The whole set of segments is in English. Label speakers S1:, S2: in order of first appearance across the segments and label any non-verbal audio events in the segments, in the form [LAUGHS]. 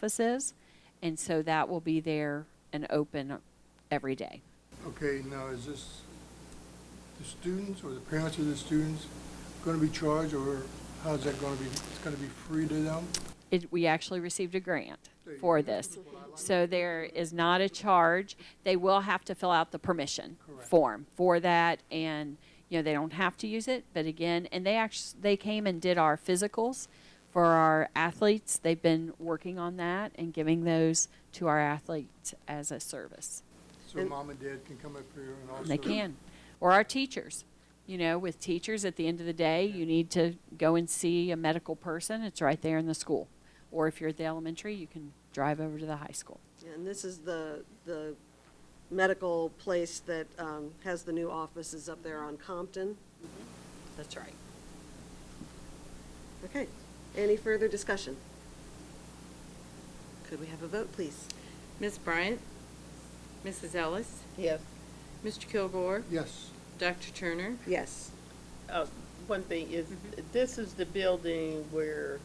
S1: offices, and so that will be there and open every day.
S2: Okay, now is this the students or the parents of the students going to be charged or how's that going to be? It's going to be free to them?
S1: It, we actually received a grant
S2: There you
S1: for
S2: go.
S1: this. So there is not a charge. They will have to fill out the permission
S2: Correct.
S1: form for that, and, you know, they don't have to use it, but again, and they actually, they came and did our physicals for our athletes. They've been working on that and giving those to our athletes as a service.
S2: So mom and dad can come up here and also.
S1: They can. Or our teachers. You know, with teachers, at the end of the day, you need to go and see a medical person. It's right there in the school. Or if you're at the elementary, you can drive over to the high school.
S3: And this is the, the medical place that um, has the new offices up there on Compton.
S1: That's right.
S3: Okay, any further discussion? Could we have a vote, please?
S4: Ms. Bryant? Mrs. Ellis?
S5: Yes,
S4: Mr. Kilgore?
S2: Yes,
S4: Dr. Turner?
S3: Yes.
S5: uh, one thing is,
S3: Mm-hmm.
S5: this is the building where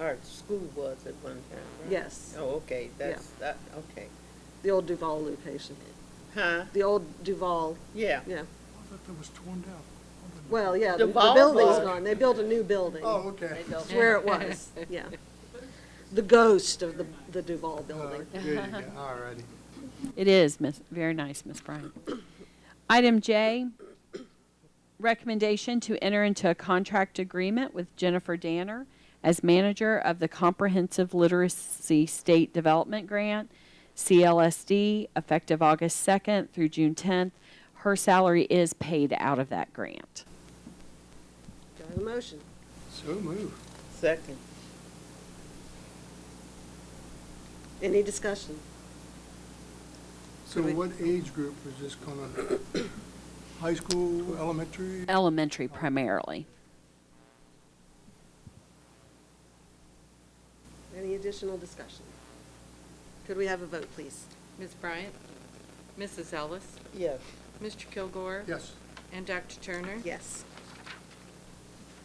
S5: our school was at one time, right?
S3: Yes.
S5: Oh, okay, that's, that, okay.
S3: The old Duval location.
S5: Huh?
S3: The old Duval,
S5: Yeah.
S2: I
S3: yeah.
S2: thought that was torn down. I thought that-
S3: Well, yeah, the the
S5: Duval
S3: building's
S5: was-
S3: gone. They built a new building.
S2: Oh, okay.
S3: It's where it
S1: [LAUGHS]
S3: was, yeah. The ghost of the, the Duval
S2: Uh,
S3: building.
S2: There you go, all righty.
S1: It is, Miss, very nice, Miss Bryant. Item J, recommendation to enter into a contract agreement with Jennifer Danner as manager of the Comprehensive Literacy State Development Grant, CLSD, effective August 2nd through June 10th. Her salary is paid out of that grant.
S3: Do I have a motion?
S2: So move.
S5: Second,
S3: Any discussion?
S2: So
S3: we-
S2: what age group is this going to, [COUGHS] high school, elementary?
S1: Elementary primarily.
S3: Any additional discussion? Could we have a vote, please?
S4: Ms. Bryant? Mrs. Ellis?
S5: yes,
S4: Mr. Kilgore?
S2: Yes,
S4: And Dr. Turner?
S3: Yes.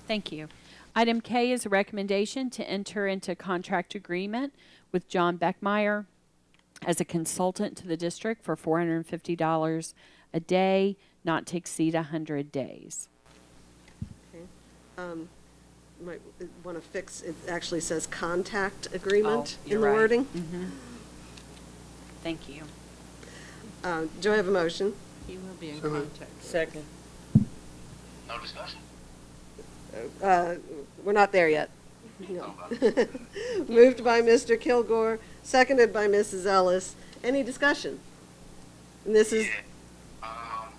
S1: Thank you. Item K is a recommendation to enter into contract agreement with John Beckmeyer as a consultant to the district for four hundred and fifty dollars a day, not to exceed hundred days.
S3: Okay. Um, Might want to fix, it actually says contact agreement
S1: Oh,
S3: in the
S1: you're right.
S3: wording.
S1: Thank you.
S3: Uh, Do I have a motion?
S4: He will be in
S2: So moved.
S4: contact. with us.
S5: second,
S6: No discussion?
S3: Uh, We're not there yet. No. [LAUGHS] Moved by Mr. Kilgore, seconded by Mrs. Ellis. Any discussion? And this is,
S6: Yeah. Um,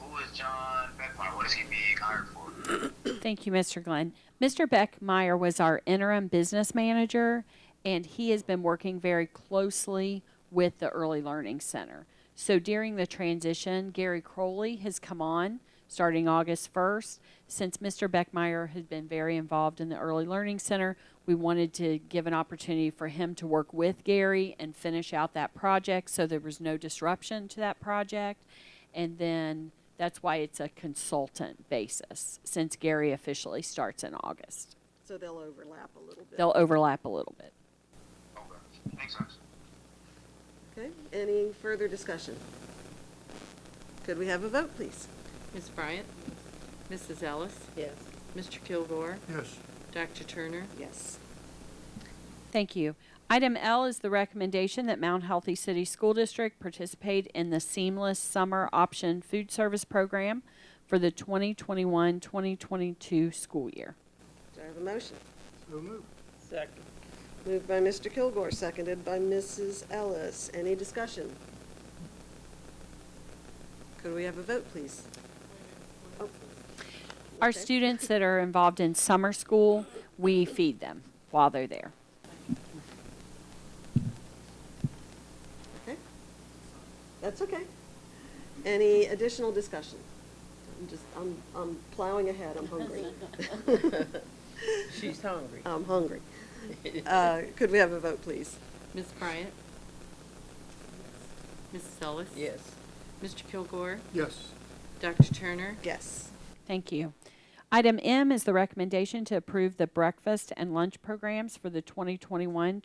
S6: who is John Beckmeyer? What is he being hired for?
S1: Thank you, Mr. Glenn. Mr. Beckmeyer was our interim business manager, and he has been working very closely with the Early Learning Center. So during the transition, Gary Crowley has come on starting August 1st. Since Mr. Beckmeyer has been very involved in the Early Learning Center, we wanted to give an opportunity for him to work with Gary and finish out that project so there was no disruption to that project. And then that's why it's a consultant basis, since Gary officially starts in August.
S3: so they'll overlap a little bit.
S1: They'll overlap a little bit.
S6: Okay, makes sense.
S3: Okay, any further discussion? Could we have a vote, please?
S4: Ms. Bryant? Mrs. Ellis?
S5: yes.
S4: Mr. Kilgore?
S2: yes.
S4: Dr. Turner?
S3: Yes.
S1: Thank you. Item L is the recommendation that Mount Healthy City School District participate in the Seamless Summer Option Food Service Program for the 2021-2022 school year.
S3: Do I have a motion?
S2: So move.
S5: Second,
S3: Moved by Mr. Kilgore, seconded by Mrs. Ellis. Any discussion? Could we have a vote, please? Oh,
S1: Our
S3: Okay.
S1: students that are involved in summer school, we feed them while they're there.
S3: okay. That's okay. Any additional discussion? I'm just, I'm, I'm plowing ahead, I'm hungry.
S5: [LAUGHS] she's hungry.
S3: [LAUGHS]
S5: [LAUGHS]
S3: I'm hungry. Uh, Could we have a vote, please?
S4: Ms. Bryant? Mrs. Ellis?
S5: Yes,
S4: Mr. Kilgore?
S2: Yes,
S4: Dr. Turner?
S3: Yes.
S1: Thank you. Item M is the recommendation to approve the breakfast and lunch programs for the 2021